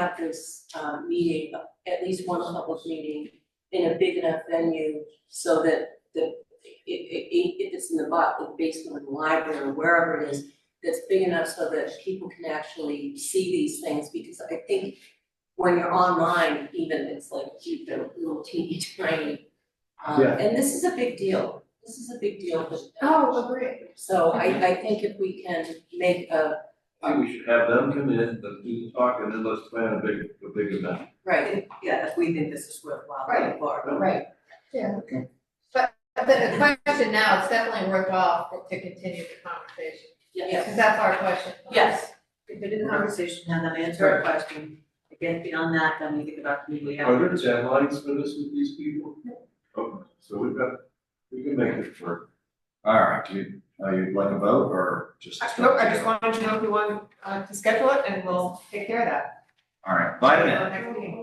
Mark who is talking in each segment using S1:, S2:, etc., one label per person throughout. S1: have this um meeting, at least one public meeting in a big enough venue so that the i- i- i- if it's in the bu- basement of the library or wherever it is, that's big enough so that people can actually see these things, because I think when you're online, even it's like you know, little teeny tiny. Um
S2: Yeah.
S1: and this is a big deal, this is a big deal, but
S3: Oh, agree.
S1: so I I think if we can make a,
S4: I think we should have them come in, let them do the talk, and then let's plan a big, a big event.
S1: right,
S5: Yeah, if we think this is worthwhile
S3: Right.
S5: going forward.
S3: Right, yeah. But, but the question now, it's definitely worthwhile for- to continue the conversation,
S1: yeah,
S3: because that's our question.
S1: yes,
S5: If it is a conversation, have them answer a question, again, beyond that, then we think about community
S2: Oh,
S4: Are
S5: outreach.
S4: there deadlines for this with these people? Okay, so we've got, we can make it work.
S2: All right, do you, uh, you'd like a vote or just?
S6: I- No, I just wanted to know if you wanted uh, to schedule it and we'll take care of that.
S2: All right, vitamin.
S6: for our next meeting.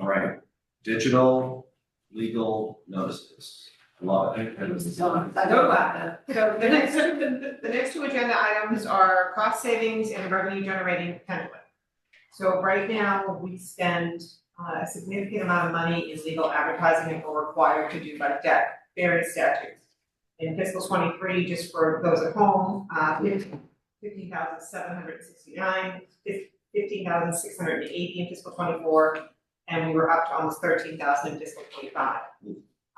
S2: All right, digital legal notices, love it.
S6: I know about that. So the next, the, the next two agenda items are cost savings and revenue generating penalty. So right now, we spend uh, a significant amount of money in legal advertising and we're required to do by debt, various statutes. In fiscal twenty-three, just for those at home, uh, fifteen thousand seven hundred sixty-nine, fifteen thousand six hundred and eighty in fiscal twenty-four, and we were up to almost thirteen thousand in fiscal twenty-five.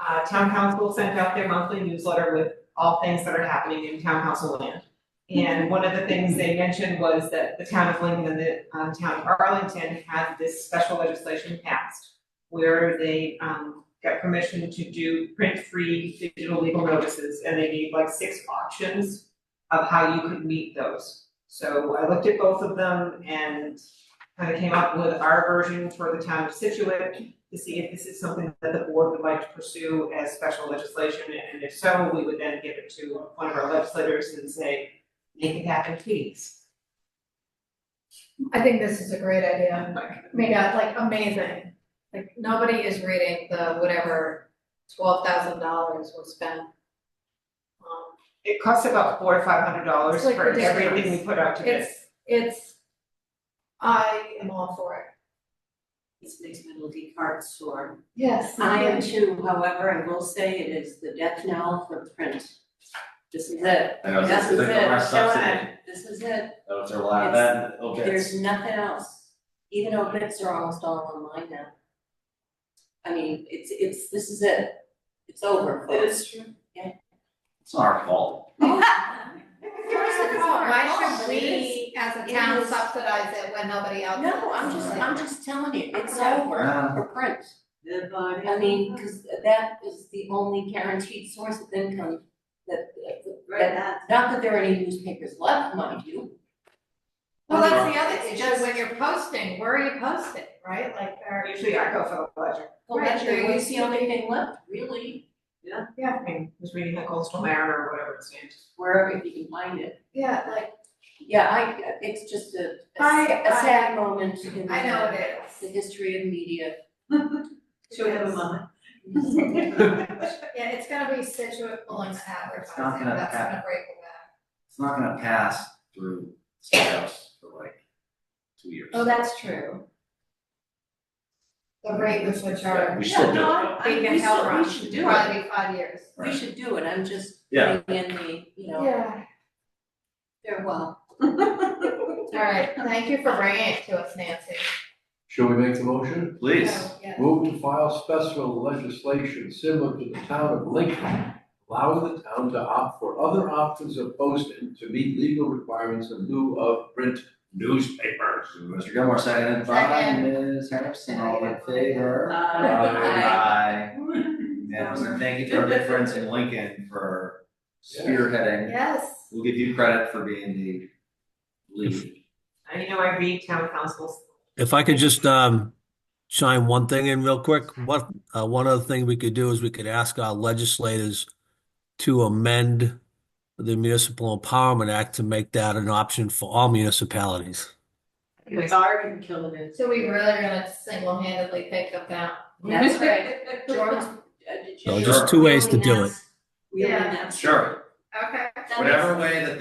S6: Uh, town council sent out their monthly newsletter with all things that are happening in town council land. And one of the things they mentioned was that the town of Lincoln and the um, town of Arlington had this special legislation passed where they um, got permission to do print-free digital legal notices, and they gave like six options of how you could meet those. So I looked at both of them and kind of came up with our version for the town of Situate to see if this is something that the board would like to pursue as special legislation, and if so, we would then give it to one of our legislators and say, make it happen, please.
S3: I think this is a great idea, I mean, that's like amazing, like, nobody is reading the whatever twelve thousand dollars was spent. Um,
S6: It costs about four to five hundred dollars
S3: It's like
S6: for everything
S3: ridiculous.
S6: we put out to bid.
S3: It's, it's, I am all for it.
S1: it's mixed middle D card store.
S3: Yes.
S1: I am too, however, I will say it is the death knell for print. This is it,
S2: I know, this
S1: this
S2: is
S1: is
S2: the
S1: it,
S2: last
S1: Show
S2: subsidy.
S1: it. this is it,
S2: That was their last, that, okay.
S1: there's nothing else, even though bits are almost all online now. I mean, it's, it's, this is it, it's over, folks.
S6: true.
S2: It's not our fault.
S3: Here's the problem, why should
S1: It
S3: we as a
S1: It
S3: town
S1: is.
S3: subsidize it when nobody else?
S1: No, I'm
S3: does?
S1: just, I'm just telling you, it's over
S2: Yeah.
S1: for print.
S5: The body.
S1: I mean, cause that is the only guaranteed source of income that,
S5: Right, that,
S1: not that there are any newspapers left, mind you.
S3: Well, that's the other
S1: It's
S3: issue, when you're posting, where are you posting, right, like, are
S6: Usually I go for the ledger.
S1: Well,
S3: Right,
S1: that's your,
S3: there
S1: we
S3: used
S1: see
S3: to
S1: only
S3: be-
S1: thing left, really,
S6: Yeah, I mean, was reading the Coastal Mariner or whatever it stands.
S1: wherever if you can find it.
S3: Yeah, like,
S1: Yeah, I, it's just a, a
S3: I-
S1: s- a sad moment in
S3: I know
S1: the,
S3: it
S1: the
S3: is.
S1: history of media.
S5: should we have a moment?
S3: Yeah, it's gonna be Situate pulling the
S2: It's not
S3: advertising,
S2: gonna
S3: that's gonna
S2: happen.
S3: break the back.
S2: It's not gonna pass through state house for like two years.
S3: Oh, that's true. The rate with which
S2: Yeah,
S3: our,
S2: we
S3: they
S2: should do
S1: no,
S2: it.
S1: I- I-
S3: can
S1: we
S3: help
S1: should-
S3: run,
S1: We should do it,
S3: probably be five years.
S1: we should do it, I'm just
S2: Yeah.
S1: putting in the, you know, farewell.
S3: Yeah. All right, thank you for bringing it to us, Nancy.
S4: Shall we make the motion?
S2: Please,
S3: Yeah.
S4: Move to file special legislation similar to the town of Lincoln, allowing the town to opt for other options of posting to meet legal requirements in lieu of print newspapers.
S2: Mr. Gilmore, seconded by Ms. Harrison, all in favor?
S4: Uh,
S2: Aye. Yeah, so thank you to our good friends in Lincoln for spearheading.
S3: Yes.
S2: We'll give you credit for being the lead.
S6: I, Uh, you know, I read town councils.
S7: If I could just um chime one thing in real quick, what uh, one other thing we could do is we could ask our legislators to amend the Municipal Empowerment Act to make that an option for all municipalities.
S1: It's already killing it.
S3: So we really are gonna single-handedly pick them down.
S1: That's right. George, uh, did you?
S7: So just two ways to do it.
S1: Really nice. Really
S3: Yeah.
S1: nice.
S2: Sure,
S3: Okay.
S1: That makes-
S2: whatever way that